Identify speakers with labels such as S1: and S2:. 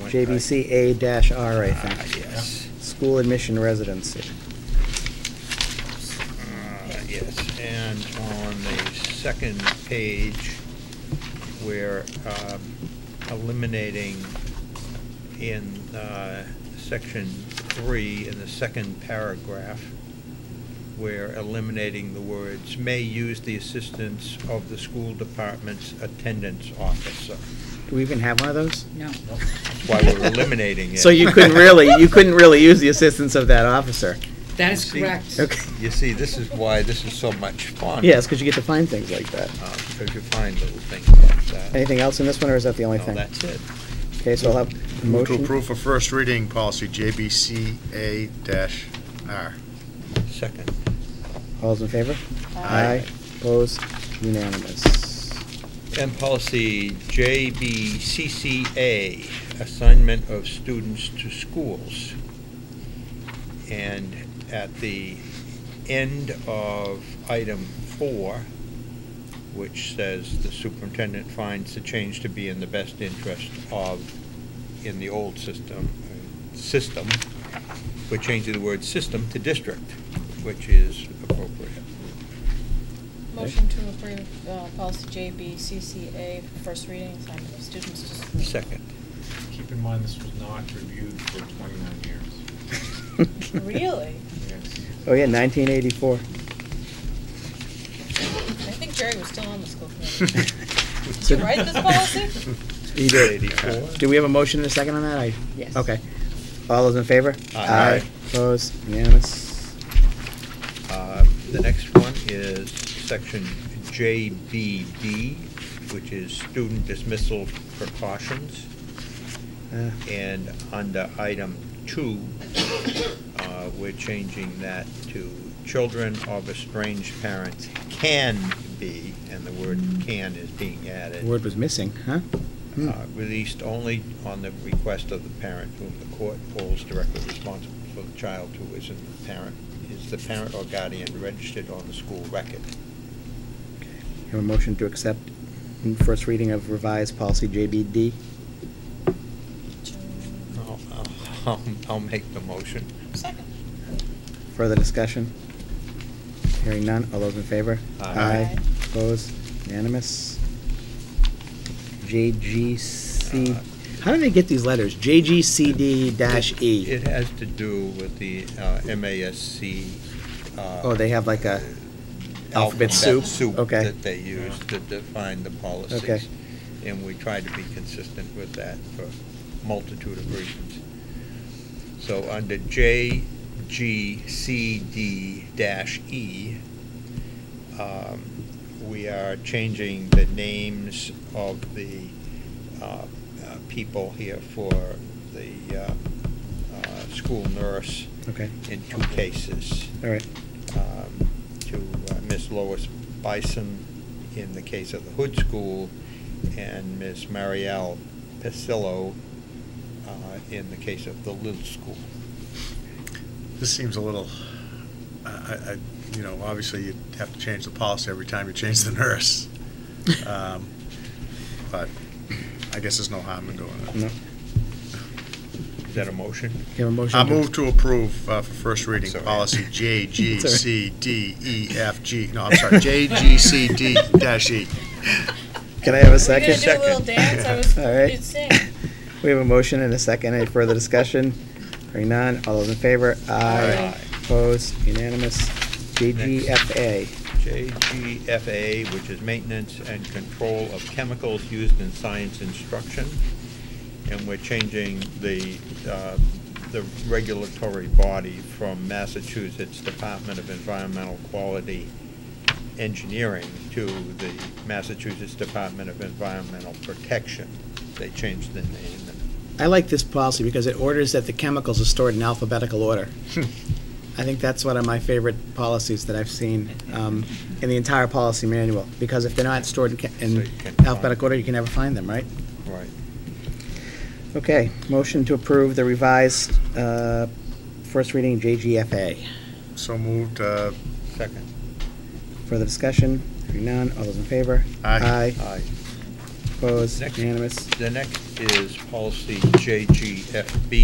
S1: JBCA dash R, I
S2: Ah,
S1: think.
S2: yes.
S1: School admission residency.
S2: Uh, Yes, and on the second page, we're um, eliminating in uh, section three, in the second paragraph, we're eliminating the words, "may use the assistance of the school department's attendance officer."
S1: Do we even have one of those?
S3: No.
S2: That's why we're eliminating it.
S1: So you couldn't really, you couldn't really use the assistance of that officer.
S3: That is
S2: You see-
S3: correct.
S1: Okay.
S2: You see, this is why this is so much fun.
S1: Yes, because you get to find things like that.
S2: uh, Because you find little things like that.
S1: Anything else in this one, or is that the only
S2: No,
S1: thing?
S2: that's it.
S1: Okay, so I'll have a
S4: Move to
S1: motion.
S4: approve for first reading, policy JBCA-R.
S2: Second.
S1: All those in favor?
S4: Aye.
S1: Opposed? Unanimous.
S2: And policy JBCCA, assignment of students to schools. And at the end of item four, which says the superintendent finds the change to be in the best interest of, in the old system, uh, system, we're changing the word system to district, which is appropriate.
S5: Motion to approve uh, policy JBCCA, first reading, assignment of students to school.
S2: Second.
S6: Keep in mind, this was not reviewed for 29 years.
S5: Really?
S6: Yes.
S1: Oh, yeah, 1984.
S5: I think Jerry was still on the school committee. Did you write this policy?
S1: He did.
S2: 84.
S1: Do we have a motion and a second on that? I,
S3: Yes.
S1: okay. All those in favor?
S2: Aye.
S1: Opposed? Unanimous.
S2: Uh, The next one is section JBD, which is student dismissal precautions.
S1: Uh,
S2: And under item two, uh, we're changing that to children of estranged parents can be, and the word can is being added.
S1: The word was missing, huh? Hmm.
S2: uh, Released only on the request of the parent whom the court holds directly responsible for the child who is in the parent, is the parent or guardian registered on the school record.
S1: Have a motion to accept in first reading of revised policy JBD.
S2: I'll- I'll I'll make the motion.
S5: Second.
S1: Further discussion? Hearing none. All those in favor?
S2: Aye.
S5: Aye.
S1: Opposed? Unanimous. JGC,
S2: Uh,
S1: how do they get these letters? JGCD dash E.
S2: It has to do with the uh, MASC. uh,
S1: Oh, they have like a alphabet soup? Okay.
S2: that they use to define the policies.
S1: Okay.
S2: And we try to be consistent with that for multitude of reasons. So under JGCD dash E, um, we are changing the names of the uh, uh, people here for the uh, uh, school nurse
S1: Okay,
S2: in two cases
S1: all right.
S2: um, to uh, Ms. Lois Bison in the case of the Hood School, and Ms. Marielle Pacillo uh, in the case of the Little School.
S4: This seems a little, I, I- I- you know, obviously you have to change the policy every time you change the nurse. Um, But I guess there's no harm in doing
S1: No.
S4: it.
S2: Is that a motion?
S1: Have a motion?
S4: I
S1: to-
S4: move to approve uh, for first reading,
S2: sorry.
S4: policy
S1: It's all
S4: JGCDEFG, E no, I'm sorry, JGCD-E.
S1: Can I have a
S5: We're
S1: second?
S5: gonna do a little dance, I was,
S1: All right.
S5: you'd sing.
S1: We have a motion and a second. Any further discussion? Hearing none. All those in favor? Aye.
S5: Aye.
S1: Opposed? Unanimous. JGFA.
S2: JGFA, which is Maintenance and Control of Chemicals Used in Science Instruction, and we're changing the, uh, the regulatory body from Massachusetts Department of Environmental Quality Engineering to the Massachusetts Department of Environmental Protection. They changed the name.
S1: I like this policy because it orders that the chemicals are stored in alphabetical order. I think that's one of my favorite policies that I've seen um, in the entire policy manual, because if they're not stored in ca-
S2: So
S1: in
S2: you can't
S1: alphabetical
S2: find-
S1: order, you can never find them, right?
S2: Right.
S1: Okay, motion to approve the revised uh, first reading JGFA.
S4: So moved, uh,
S2: Second.
S1: Further discussion? Hearing none, all those in favor?
S4: Aye.
S2: Aye.
S1: opposed,
S2: Next.
S1: unanimous.
S2: The next is policy JGFB,